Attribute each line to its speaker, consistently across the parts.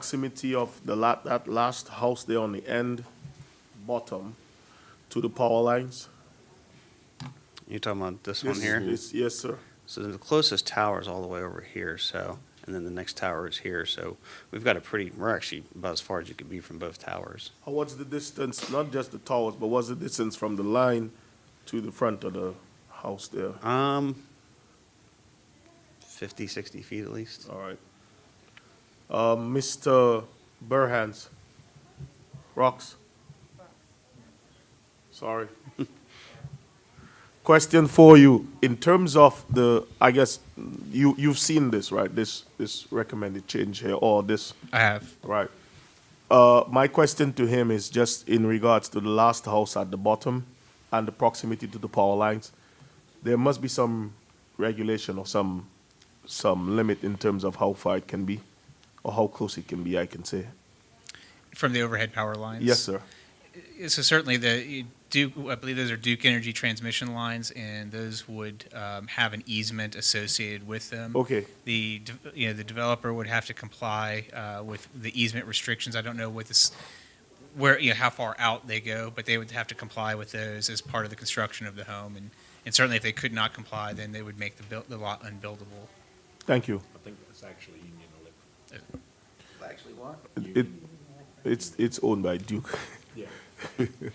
Speaker 1: proximity of the la, that last house there on the end, bottom, to the power lines.
Speaker 2: You're talking about this one
Speaker 1: Yes,
Speaker 2: here?
Speaker 1: yes, Yes, sir.
Speaker 2: So the closest tower is all the way over here, so, and then the next tower is here, so we've got a pretty, we're actually about as far as you could be from both towers.
Speaker 1: How- What's the distance, not just the towers, but what's the distance from the line to the front of the house there?
Speaker 2: Um, 50, 60 feet at least.
Speaker 1: All right. Uh, Mr. Burhans. Rocks. Sorry. Question for you, in terms of the, I guess, you, you've seen this, right? This, this recommended change here, or this,
Speaker 3: I have.
Speaker 1: right? Uh, my question to him is just in regards to the last house at the bottom and the proximity to the power lines. There must be some regulation or some, some limit in terms of how far it can be or how close it can be, I can say.
Speaker 3: From the overhead power lines?
Speaker 1: Yes, sir.
Speaker 3: So certainly the Duke, I believe those are Duke Energy transmission lines, and those would um, have an easement associated with them.
Speaker 1: Okay.
Speaker 3: The, de- you know, the developer would have to comply uh, with the easement restrictions. I don't know what this, where, you know, how far out they go, but they would have to comply with those as part of the construction of the home. And and certainly if they could not comply, then they would make the buil- the lot unbuildable.
Speaker 1: Thank you.
Speaker 4: I think it's actually Union Electric.
Speaker 5: Actually, what?
Speaker 1: It, it's, it's owned by Duke. Um,
Speaker 4: Yeah.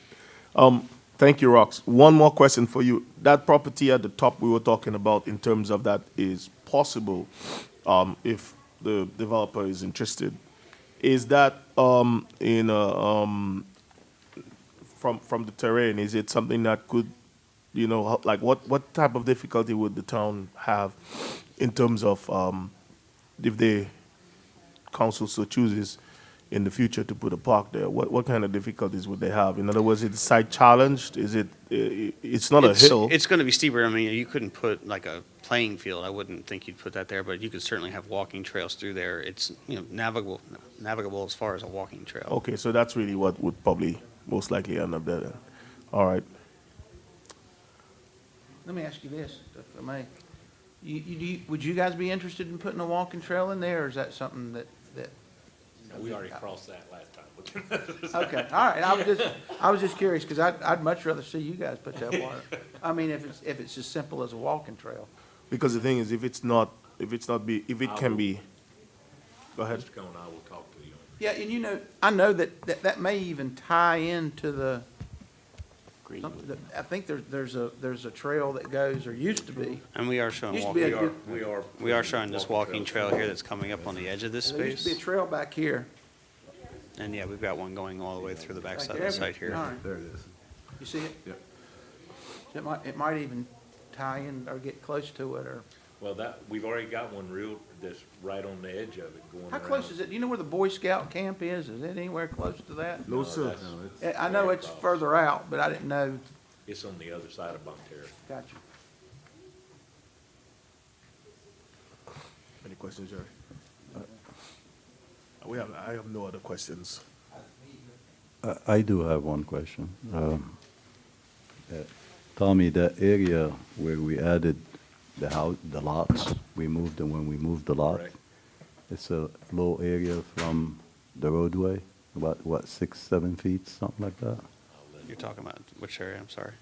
Speaker 1: Thank you, Rox. One more question for you. That property at the top we were talking about in terms of that is possible um, if the developer is interested. Is that um, in a, um, from from the terrain? Is it something that could, you know, ho- like what what type of difficulty would the town have in terms of um, if the council so chooses in the future to put a park there, what, what kind of difficulties would they have? In other words, is the site challenged? Is it, uh, it's not a
Speaker 2: It's-
Speaker 1: hill?
Speaker 2: It's going to be steeper. I mean, you couldn't put like a playing field. I wouldn't think you'd put that there, but you could certainly have walking trails through there. It's, you know, navigable, navigable as far as a walking trail.
Speaker 1: Okay, so that's really what would probably most likely end up there then. All right.
Speaker 5: Let me ask you this, if I may. You, you, do you- would you guys be interested in putting a walking trail in there, or is that something that, that?
Speaker 4: We already crossed that last time.
Speaker 5: Okay, all right, I was just, I was just curious, because I'd, I'd much rather see you guys put that water. I mean, if it's, if it's as simple as a walking trail.
Speaker 1: Because the thing is, if it's not, if it's not be, if it can be, go ahead.
Speaker 4: Mr. Cohen, I will talk to you. on
Speaker 5: Yeah, and you know, I know that, that, that may even tie into the, something that- I think there's, there's a, there's a trail that goes, or used to be.
Speaker 2: And we are showing
Speaker 5: Used to be a
Speaker 2: walking,
Speaker 5: good,
Speaker 4: it. We are.
Speaker 2: we are showing this walking trail here that's coming up on the edge of this
Speaker 5: there used to be a
Speaker 2: space.
Speaker 5: trail back here.
Speaker 2: And yeah, we've got one going all the way through the
Speaker 5: Right
Speaker 2: backside of
Speaker 5: there.
Speaker 2: the site here.
Speaker 5: All right.
Speaker 4: There it is.
Speaker 5: You see it?
Speaker 4: Yep.
Speaker 5: It might, it might even tie in or get close to it, or,
Speaker 4: Well, that, we've already got one real, that's right on the edge of it going
Speaker 5: how
Speaker 4: around.
Speaker 5: close is it? Do you know where the Boy Scout camp is? Is it anywhere close to that?
Speaker 1: No, sir.
Speaker 4: that's-
Speaker 5: Eh, I know it's
Speaker 4: across.
Speaker 5: further out, but I didn't know.
Speaker 4: It's on the other side of Bonterra.
Speaker 5: Gotcha.
Speaker 1: Any questions, Jerry? Uh, We have, I have no other questions.
Speaker 6: I- I do have one question. Um, uh, Tommy, the area where we added the house, the lots, we moved them when we moved the lot.
Speaker 4: Correct.
Speaker 6: It's a low area from the roadway, about, what, six, seven feet, something like that?
Speaker 2: You're talking about which area? I'm sorry.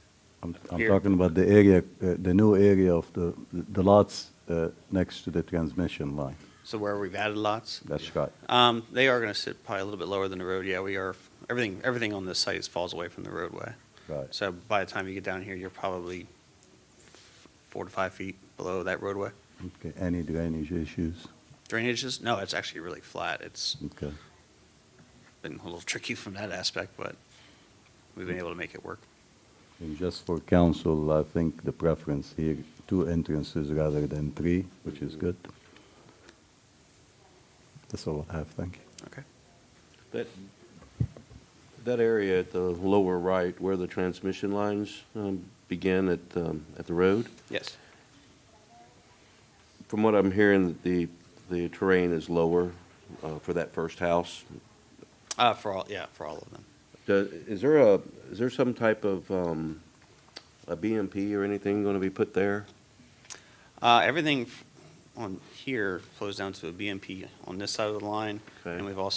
Speaker 6: I'm, I'm
Speaker 2: Here.
Speaker 6: talking about the area, uh, the new area of the, the lots uh, next to the transmission line.
Speaker 2: So where we've added lots?
Speaker 6: That's right.
Speaker 2: Um, they are gonna sit probably a little bit lower than the road. Yeah, we are, everything, everything on this site is- falls away from the roadway.
Speaker 6: Right.
Speaker 2: So by the time you get down here, you're probably f- four to five feet below that roadway.
Speaker 6: Okay, any drainage issues?
Speaker 2: Drainages? No, it's actually really flat. It's
Speaker 6: Okay,
Speaker 2: been a little tricky from that aspect, but we've been able to make it work.
Speaker 6: and just for council, I think the preference here, two entrances rather than three, which is good. That's all I have, thank you.
Speaker 2: Okay.
Speaker 7: That, that area at the lower right where the transmission lines um, begin at, um, at the road,
Speaker 2: Yes.
Speaker 7: from what I'm hearing, the, the terrain is lower uh, for that first house.
Speaker 2: Uh, for all, yeah, for all of them.
Speaker 7: Do- Is there a, is there some type of um, a BMP or anything going to be put there?
Speaker 2: Uh, everything, f- on here flows down to a BMP on this side of the line.
Speaker 7: Okay.
Speaker 2: And we've also